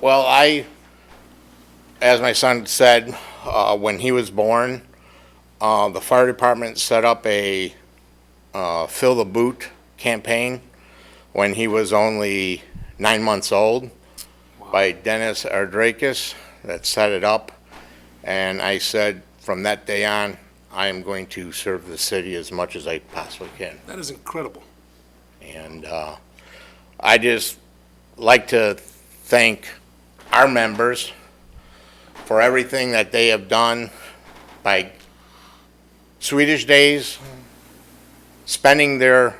Well, I, as my son said, uh, when he was born, uh, the fire department set up a uh, fill the boot campaign when he was only nine months old by Dennis Ardrakis that set it up. And I said, from that day on, I am going to serve the city as much as I possibly can. That is incredible. And uh, I just like to thank our members for everything that they have done by Swedish days, spending their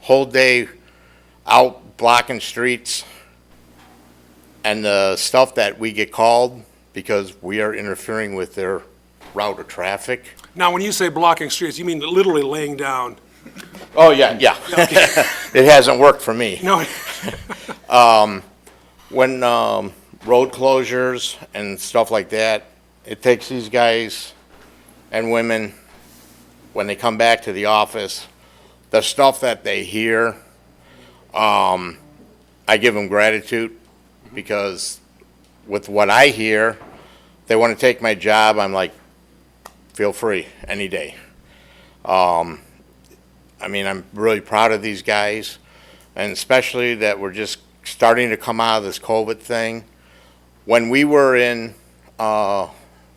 whole day out blocking streets, and the stuff that we get called because we are interfering with their route of traffic. Now, when you say blocking streets, you mean literally laying down, Oh, yeah, yeah. It hasn't worked for me. no, when um, road closures and stuff like that, it takes these guys and women when they come back to the office, the stuff that they hear, um, I give them gratitude because with what I hear, they want to take my job. I'm like, feel free any day. Um, I mean, I'm really proud of these guys and especially that we're just starting to come out of this COVID thing. When we were in uh,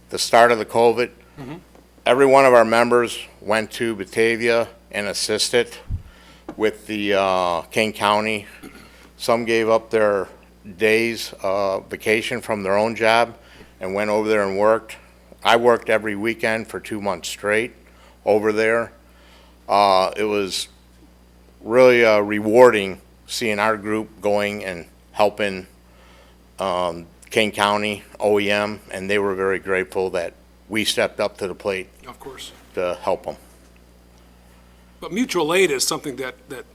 the start of the COVID, every one of our members went to Batavia and assisted with the uh, King County. Some gave up their days uh, vacation from their own job and went over there and worked. I worked every weekend for two months straight over there. Uh, It was really uh, rewarding seeing our group going and helping um, King County OEM, and they were very grateful that we stepped up to the plate of course. to help them. But mutual aid is something that, that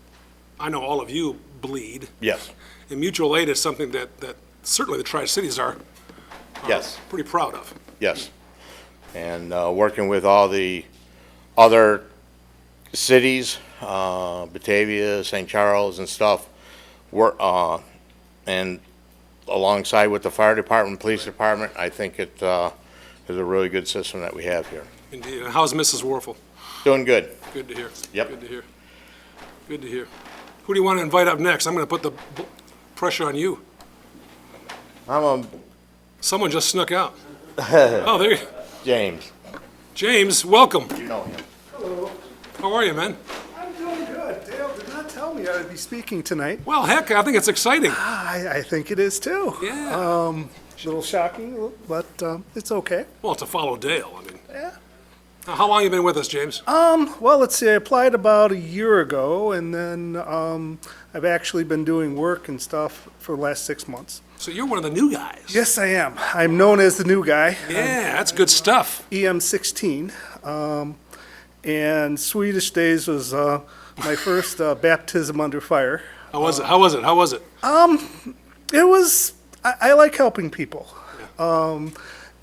I know all of you bleed, Yes, and mutual aid is something that, that certainly the Tri-Cities are yes, pretty proud of. yes. And uh, working with all the other cities, uh, Batavia, St. Charles and stuff, we're, uh, and alongside with the fire department, police department, I think it uh, is a really good system that we have here. Indeed. And how's Mrs. Warfel? Doing good. Good to hear. Yep. Good to hear. Good to hear. Who do you want to invite up next? I'm going to put the b- pressure on you. I'm a Someone just snuck out. Oh, there, you- James. James, welcome. You know him. How are you, man? I'm doing good. Dale did not tell me I would be speaking tonight. Well, heck, I think it's exciting. I, I think it is too. Uh, Yeah. A little shocking, but um, it's okay. Well, to follow Dale, I mean. Yeah. Now, How long you been with us, James? Um, well, let's see. I applied about a year ago, and then um, I've actually been doing work and stuff for the last six months. So you're one of the new guys. Yes, I am. I'm known as the new guy. Yeah, that's good stuff. EM16. Um, and Swedish Days was uh, my first uh, baptism under fire. How was it? How was it? How was it? it was I, I like helping people um,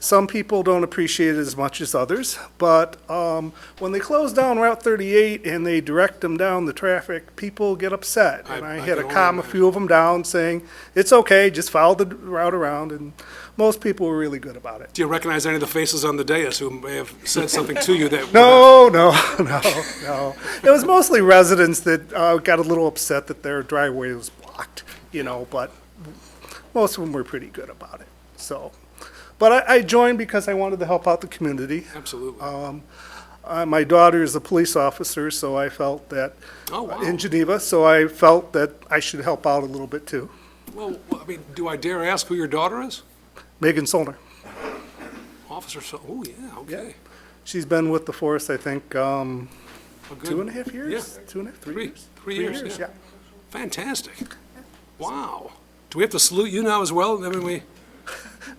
some people don't appreciate it as much as others but um, when they close down route 38 and they direct them down the traffic people get upset I- and I i, can had to only calm a imagine. few of them down saying it's okay just follow the route around and most people were really good about it Do you recognize any of the faces on the dais who may have said something to you that? no, no, no, no. It was mostly residents that uh, got a little upset that their driveway was blocked, you know, but most of them were pretty good about it. So, but I, I joined because I wanted to help out the community. Absolutely. Uh, my daughter is a police officer, so I felt that Oh, wow. in Geneva, so I felt that I should help out a little bit too. Well, I mean, do I dare ask who your daughter is? Megan Solner. Officer, so, oh, yeah, okay. She's been with the force, I think, um, Well, good. two and a half years? Yeah. Two and a half, three Three- years? three years, yeah. Fantastic. Wow. Do we have to salute you now as well? I mean, we,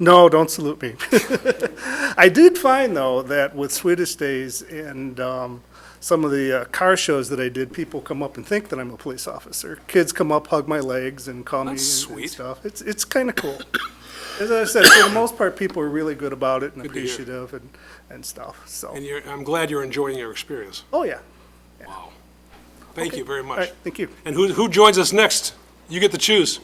No, don't salute me. I did find, though, that with Swedish Days and um, some of the uh, car shows that I did, people come up and think that I'm a police officer. Kids come up, hug my legs, and call me That's and, and sweet. stuff. It's it's kind of cool. As I said, for the most part, people are really good about it and to hear. appreciative and, and stuff. So, and you're, I'm glad you're enjoying your experience. oh yeah. Wow. Thank you very All much. right, thank you. And who, who joins us next? You get to choose.